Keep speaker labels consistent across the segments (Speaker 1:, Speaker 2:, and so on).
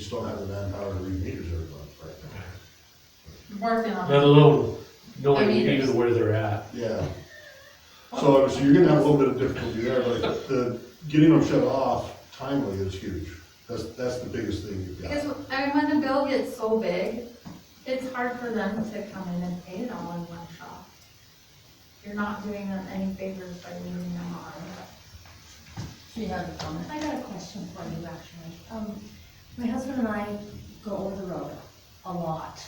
Speaker 1: We just don't have the manpower to read meters every month right now.
Speaker 2: working on
Speaker 3: let
Speaker 2: it.
Speaker 3: alone knowing
Speaker 2: Their meters.
Speaker 3: even where they're at.
Speaker 1: Yeah. So obviously, you're gonna have a little bit of difficulty there, but the, getting them shut off timely is huge. That's, that's the biggest thing you've got.
Speaker 2: Because uh, when the bill gets so big, it's hard for them to come in and pay it all in one shot. You're not doing them any favors by leaving them on.
Speaker 4: She had a comment. I got a question for you, actually. Um, my husband and I go over the road a lot,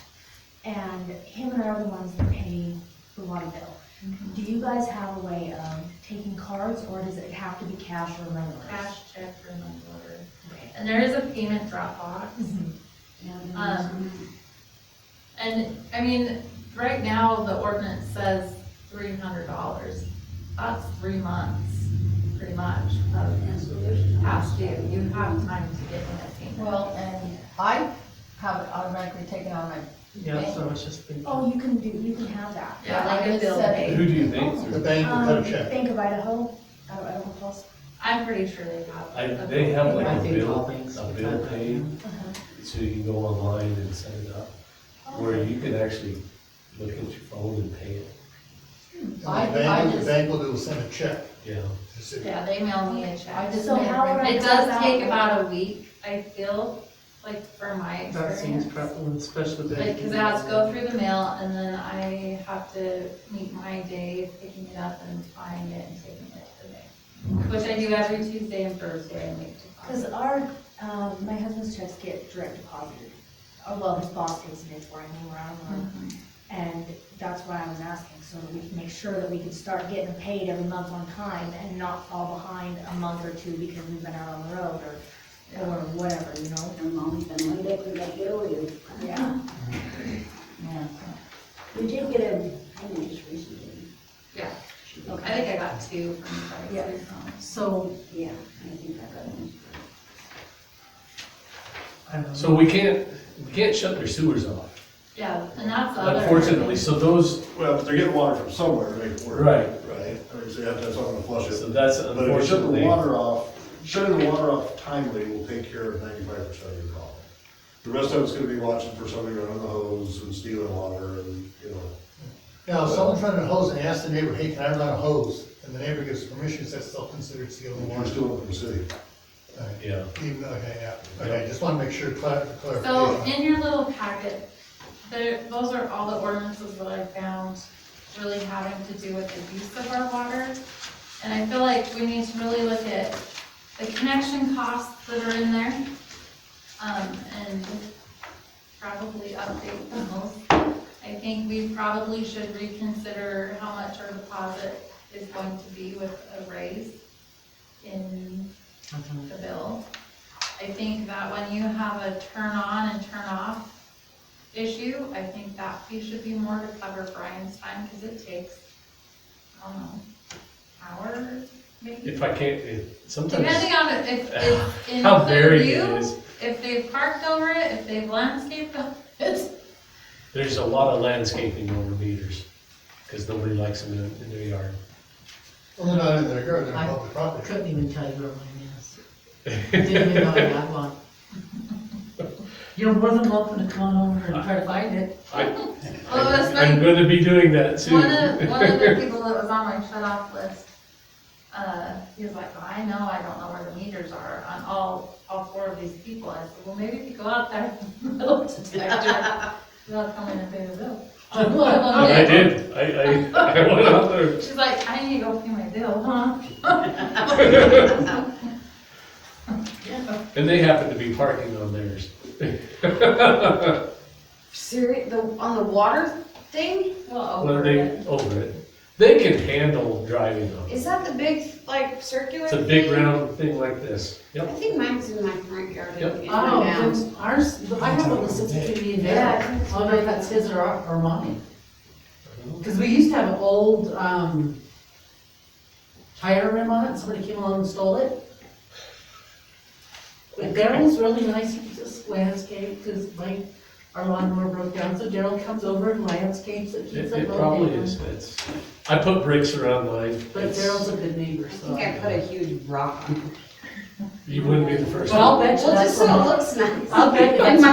Speaker 4: and him and I are the ones that pay the water bill.
Speaker 2: Mm-hmm.
Speaker 4: Do you guys have a way of taking cards, or does it have to be cash or reverse?
Speaker 2: Cash check or money order.
Speaker 4: Okay.
Speaker 2: And there is a payment drop box.
Speaker 4: Mhm.
Speaker 2: Um, and, I mean, right now, the ordinance says three hundred dollars. That's three months, pretty much, of past due. You have time to get in a payment.
Speaker 5: Well, and I have it automatically taken on my,
Speaker 6: Yeah, so it's just been.
Speaker 4: Oh, you can do, you can have that.
Speaker 2: Yeah, like a
Speaker 5: I
Speaker 2: bill
Speaker 5: said-
Speaker 2: pay.
Speaker 7: Who do you think?
Speaker 1: The
Speaker 7: through-
Speaker 1: bank will cut
Speaker 4: Um,
Speaker 1: a check.
Speaker 4: Bank of Idaho, out of Idaho Falls.
Speaker 2: I'm pretty sure they have.
Speaker 3: I,
Speaker 2: a
Speaker 3: they
Speaker 2: bill
Speaker 3: have
Speaker 2: pay.
Speaker 3: like
Speaker 6: I
Speaker 3: a
Speaker 6: think all
Speaker 3: bill,
Speaker 6: things
Speaker 3: a
Speaker 6: are
Speaker 3: bill
Speaker 6: done.
Speaker 3: paid,
Speaker 2: Uh-huh.
Speaker 3: so you can go online and set it up, where you can actually look at your phone and pay it,
Speaker 1: And the
Speaker 5: Um, I- I
Speaker 1: bank, the
Speaker 5: just-
Speaker 1: bank will do, send a check
Speaker 3: yeah.
Speaker 1: to the city.
Speaker 2: Yeah, they mail me a
Speaker 5: I
Speaker 2: check.
Speaker 5: just.
Speaker 4: So how would I-
Speaker 2: It does take about a week, I feel, like for my
Speaker 6: That seems
Speaker 2: experience.
Speaker 6: prevalent, especially with.
Speaker 2: Like, cause it has to go through the mail and then I have to meet my day picking it up and buying it and taking it to the bank. Which I do every Tuesday and Thursday I make
Speaker 4: Because
Speaker 2: deposits.
Speaker 4: our, um, my husband's checks get direct deposited, Oh well, his boss takes it for him, we're out of line. And that's why I was asking, so that we can make sure that we can start getting paid every month on time and not fall behind a month or two because we've been out on the road or, or whatever, you know?
Speaker 8: And Mommy's been laid up with that earlier.
Speaker 4: Yeah.
Speaker 5: Yeah.
Speaker 8: We did get a, I know just recently.
Speaker 2: Yeah,
Speaker 8: She-
Speaker 2: I think I got two from Friday.
Speaker 4: Yeah.
Speaker 5: So,
Speaker 8: Yeah, I think I got one.
Speaker 6: So
Speaker 3: So we can't, we can't shut their sewers off,
Speaker 2: Yeah, and that's the other.
Speaker 3: unfortunately, so those,
Speaker 1: Well, but they're getting water from somewhere to make it work.
Speaker 3: Right.
Speaker 1: Right? I mean, so you have to have something to flush
Speaker 3: so
Speaker 1: it.
Speaker 3: that's
Speaker 1: But if you shut the
Speaker 3: unfortunately.
Speaker 1: water off, shutting the water off timely will take care of ninety-five percent of your problem. The rest of it's gonna be watching for somebody running the hose and stealing water and, you know,
Speaker 9: Now, if someone's running a hose and asks the neighbor, hey, can I run a hose? And the neighbor gives permission, that's still considered stealing
Speaker 1: you're
Speaker 9: water.
Speaker 1: stealing from the city.
Speaker 9: Alright,
Speaker 3: Yeah,
Speaker 9: Even, okay, yeah, okay, just wanna make sure, clar-
Speaker 2: So in
Speaker 9: clarification.
Speaker 2: your little packet, there, those are all the ordinances that I found really having to do with the use of our water. And I feel like we need to really look at the connection costs that are in there. Um, and probably update those. I think we probably should reconsider how much our deposit is going to be with a raise in the bill. I think that when you have a turn on and turn off issue, I think that fee should be more to cover Brian's time, because it takes, I don't know, hour, maybe?
Speaker 3: if I can't, if, sometimes,
Speaker 2: Depending on if, if in
Speaker 3: how varied it
Speaker 2: Clearview,
Speaker 3: is,
Speaker 2: if they've parked over it, if they've landscaped over it.
Speaker 3: there's a lot of landscaping over meters, because nobody likes them in, in their yard.
Speaker 9: Well, they're not in their yard, they're
Speaker 6: I-
Speaker 9: on public property.
Speaker 6: Couldn't even tell you where mine is. Didn't even know I had one. You're more than welcome to come on over and try to find it.
Speaker 2: Well, it was
Speaker 3: I'm
Speaker 2: funny,
Speaker 3: gonna be doing that soon.
Speaker 2: Oh, one of, one of the people that was on my shut off list, uh, he was like, "Well, I know, I don't know where the meters are on all, all four of these people. I said, well, maybe if you go out there, metal detector, they'll come in and pay the bill. On one of them.
Speaker 3: And I did, I, I, I went out there,
Speaker 2: She's like, I need to go pay my bill, huh?
Speaker 3: and they happened to be parking on theirs.
Speaker 5: serious, the, on the water thing,
Speaker 2: Well,
Speaker 3: Well,
Speaker 2: over
Speaker 3: they,
Speaker 2: it.
Speaker 3: over it. They can handle driving on it.
Speaker 5: is that the big, like, circular
Speaker 3: It's
Speaker 5: thing?
Speaker 3: a big round thing like this.
Speaker 8: I
Speaker 3: Yep.
Speaker 8: think mine's in my front yard
Speaker 3: Yep.
Speaker 8: and
Speaker 6: Oh,
Speaker 8: down.
Speaker 6: then ours, I have one that's sixty-three and down. I don't know if that's his or, our- or mine. Cause we used to have an old, um, tire rim on it, and somebody came along and stole it. But Daryl's really nice, he just landscaped, cause my, our lawnmower broke down, so Daryl comes over and landscapes it, keeps
Speaker 3: It,
Speaker 6: it
Speaker 3: it
Speaker 6: mowed
Speaker 3: probably
Speaker 6: down.
Speaker 3: is, it's, I put bricks around mine.
Speaker 6: But
Speaker 3: It's-
Speaker 6: Daryl's a good neighbor,
Speaker 8: I
Speaker 6: so.
Speaker 8: think I put a huge rock on it.
Speaker 10: You wouldn't be the first.
Speaker 6: But I'll bet you
Speaker 3: Well, just
Speaker 6: that's
Speaker 3: so
Speaker 6: where
Speaker 3: it
Speaker 6: my,
Speaker 3: looks nice.
Speaker 6: I'll bet you
Speaker 3: And
Speaker 6: that's
Speaker 3: my